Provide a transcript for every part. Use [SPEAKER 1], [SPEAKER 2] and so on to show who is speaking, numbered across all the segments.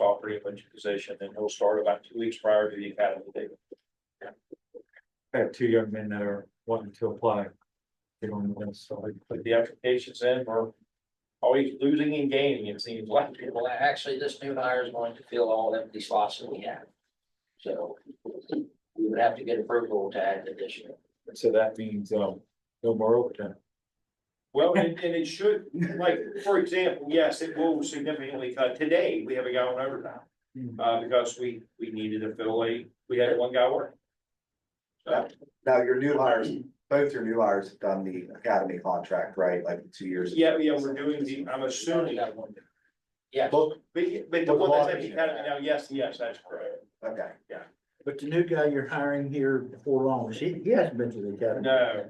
[SPEAKER 1] all three of them into position, and he'll start about two weeks prior to the academy date.
[SPEAKER 2] I have two young men that are wanting to apply. They don't know, so I
[SPEAKER 1] Put the applications in, we're always losing and gaining, it seems like.
[SPEAKER 3] Well, actually, this new hire is going to fill all empty slots that we have. So we would have to get approval to add additional.
[SPEAKER 2] so that means
[SPEAKER 4] uh,
[SPEAKER 2] um no more overtime.
[SPEAKER 1] Well, and, and it should, like, for example, yes, it will significantly cut, today, we have a guy on overtime.
[SPEAKER 2] Hmm.
[SPEAKER 1] Uh, because we, we needed to fill a, we had one guy working. So,
[SPEAKER 5] Now, your new hires, both your new hires have done the academy contract, right, like two years? ago?
[SPEAKER 1] yeah, yeah, we're doing the, I'm assuming,
[SPEAKER 3] Yeah,
[SPEAKER 5] Look,
[SPEAKER 1] but, but the one that's at the academy now, yes, yes, that's correct.
[SPEAKER 5] okay,
[SPEAKER 4] But the new guy you're hiring here before long, he, he hasn't been to the academy.
[SPEAKER 1] No.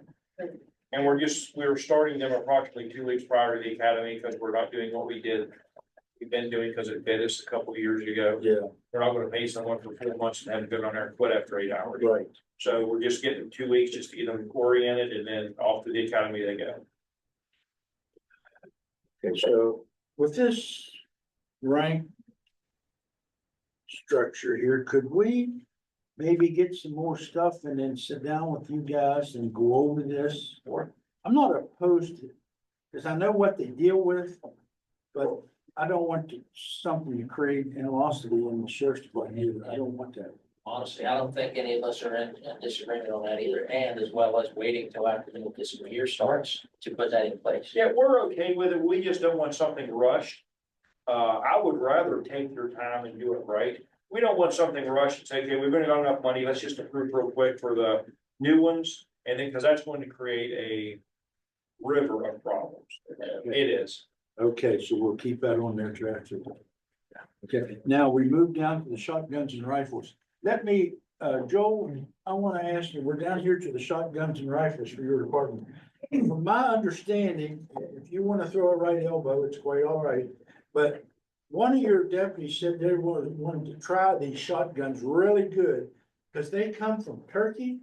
[SPEAKER 1] And we're just, we were starting them approximately two weeks prior to the academy, because we're not doing what we did. We've been doing, because it bit us a couple of years ago.
[SPEAKER 4] Yeah,
[SPEAKER 1] We're not gonna pay someone for four months and have them go on there and quit after eight hours.
[SPEAKER 4] right.
[SPEAKER 1] So we're just getting two weeks just to get them oriented and then off to the academy they go.
[SPEAKER 4] Okay, so with this rank structure here, could we maybe get some more stuff and then sit down with you guys and go over this? Or, I'm not opposed to, because I know what they deal with, but I don't want to, something to create animosity in the sheriff's department either. I don't want that.
[SPEAKER 3] honestly, I don't think any of us are in in disagreement on that either, and as well as waiting till after the new fiscal year starts to put that in place.
[SPEAKER 1] Yeah, we're okay with it. We just don't want something rushed. Uh, I would rather take your time and do it right. We don't want something rushed and say, okay, we've already got enough money. Let's just approve real quick for the new ones. And then, because that's going to create a river of problems. It is.
[SPEAKER 4] Okay, so we'll keep that on their track. Okay, now we move down to the shotguns and rifles. Let me, uh, Joel, I want to ask you, we're down here to the shotguns and rifles for your department. From my understanding, if you want to throw a right elbow, it's quite all right. But one of your deputies said they wanted, wanted to try these shotguns really good because they come from Turkey.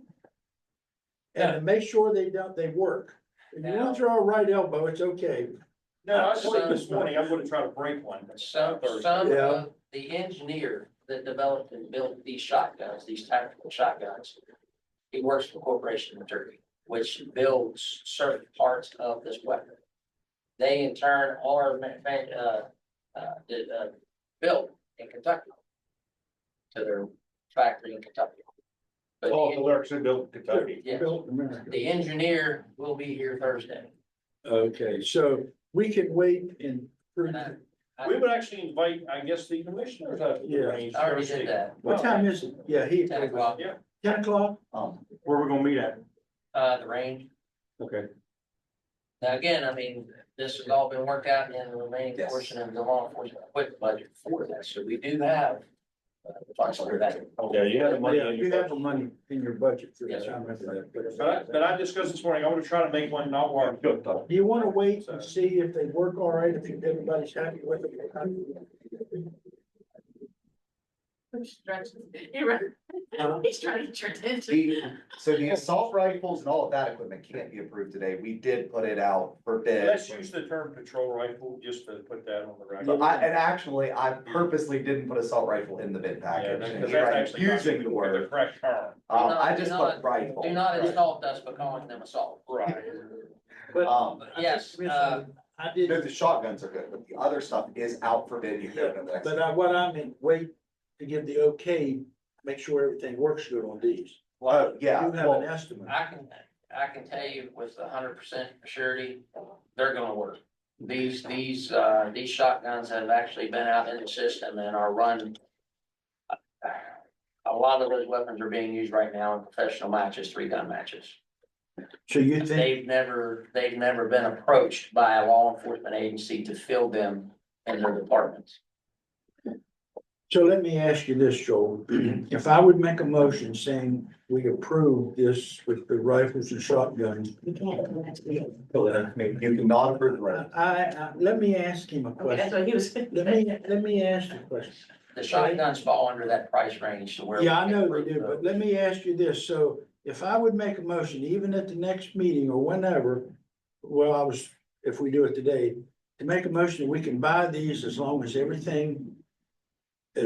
[SPEAKER 4] And to make sure they don't, they work. If you want to throw a right elbow, it's okay.
[SPEAKER 1] No, I sleep this morning. I'm gonna try to break one.
[SPEAKER 3] Some, some of the engineer that developed and built these shotguns, these tactical shotguns. He works for a corporation in Turkey, which builds certain parts of this weapon. They in turn are, ma- ma- uh, uh, did, uh, built in Kentucky. To their factory in Kentucky. But the
[SPEAKER 1] All the lyrics are built in Kentucky.
[SPEAKER 3] Yes.
[SPEAKER 4] Built in America.
[SPEAKER 3] The engineer will be here Thursday.
[SPEAKER 4] Okay, so we can wait and.
[SPEAKER 1] We would actually invite, I guess, the commissioners. up to the
[SPEAKER 4] Yeah.
[SPEAKER 1] range
[SPEAKER 3] I already
[SPEAKER 1] Thursday.
[SPEAKER 3] did that,
[SPEAKER 4] What time is it? Yeah, he.
[SPEAKER 3] ten o'clock,
[SPEAKER 4] Ten o'clock?
[SPEAKER 3] um,
[SPEAKER 2] Where we gonna meet at?
[SPEAKER 3] uh, the range.
[SPEAKER 2] Okay.
[SPEAKER 3] Now, again, I mean, this has all been worked out in the remaining
[SPEAKER 5] Yes.
[SPEAKER 3] portion of the law enforcement equipment budget for this, so we do have. uh, the funds for that.
[SPEAKER 2] Yeah, you have the money.
[SPEAKER 4] Yeah, you have the money in your budget for
[SPEAKER 3] Yes,
[SPEAKER 4] that.
[SPEAKER 3] sir.
[SPEAKER 4] I remember that.
[SPEAKER 1] But I, but I discussed this morning. I'm gonna try to make one not work.
[SPEAKER 4] but- Do you wanna wait and see if they work all right, if everybody's happy with it?
[SPEAKER 6] He's trying to- he re- he's trying to turn it into.
[SPEAKER 5] The- so the assault rifles and all of that equipment can't be approved today, we did put it out for bid.
[SPEAKER 1] Let's use the term patrol rifle just to put that on the
[SPEAKER 5] But
[SPEAKER 1] record.
[SPEAKER 5] I, and actually, I purposely didn't put assault rifle in the bid
[SPEAKER 1] Yeah,
[SPEAKER 5] package,
[SPEAKER 1] that-
[SPEAKER 5] and
[SPEAKER 1] 'cause
[SPEAKER 5] here
[SPEAKER 1] that's
[SPEAKER 5] I'm
[SPEAKER 1] actually not
[SPEAKER 5] using the word,
[SPEAKER 1] Correct term,
[SPEAKER 3] Do
[SPEAKER 5] um,
[SPEAKER 3] not-
[SPEAKER 5] I
[SPEAKER 3] do
[SPEAKER 5] just
[SPEAKER 3] not-
[SPEAKER 5] put rifle.
[SPEAKER 3] Do not insult us by calling them assault.
[SPEAKER 1] right.
[SPEAKER 5] Um,
[SPEAKER 3] But Yes, uh,
[SPEAKER 4] I
[SPEAKER 5] no,
[SPEAKER 4] did,
[SPEAKER 5] the shotguns are good, but the other stuff is out for bid, you can go to the next.
[SPEAKER 4] but I, what I meant, wait to give the okay, make sure everything works good on these.
[SPEAKER 5] Oh, yeah,
[SPEAKER 4] You have an
[SPEAKER 5] well,
[SPEAKER 4] estimate.
[SPEAKER 3] I can, I can tell you with a hundred percent surety, they're gonna work. These, these, uh, these shotguns have actually been out in the system and are run. A lot of those weapons are being used right now in professional matches, three gun matches.
[SPEAKER 4] So you think,
[SPEAKER 3] They've never, they've never been approached by a law enforcement agency to fill them in their departments.
[SPEAKER 4] so let me ask you this, Joel. If I would make a motion saying we approve this with the rifles and shotguns,
[SPEAKER 6] We can't, we have to be-
[SPEAKER 5] you cannot approve the rifle.
[SPEAKER 4] I, I, let me ask him a
[SPEAKER 6] Okay, that's
[SPEAKER 4] question.
[SPEAKER 6] what he was.
[SPEAKER 4] Let me, let me ask you a question.
[SPEAKER 3] The shotguns fall under that price range to where.
[SPEAKER 4] Yeah, I
[SPEAKER 3] we can
[SPEAKER 4] know
[SPEAKER 3] approve
[SPEAKER 4] they do,
[SPEAKER 3] them.
[SPEAKER 4] but let me ask you this. So if I would make a motion, even at the next meeting or whenever, well, I was, if we do it today, to make a motion, that we can buy these as long as everything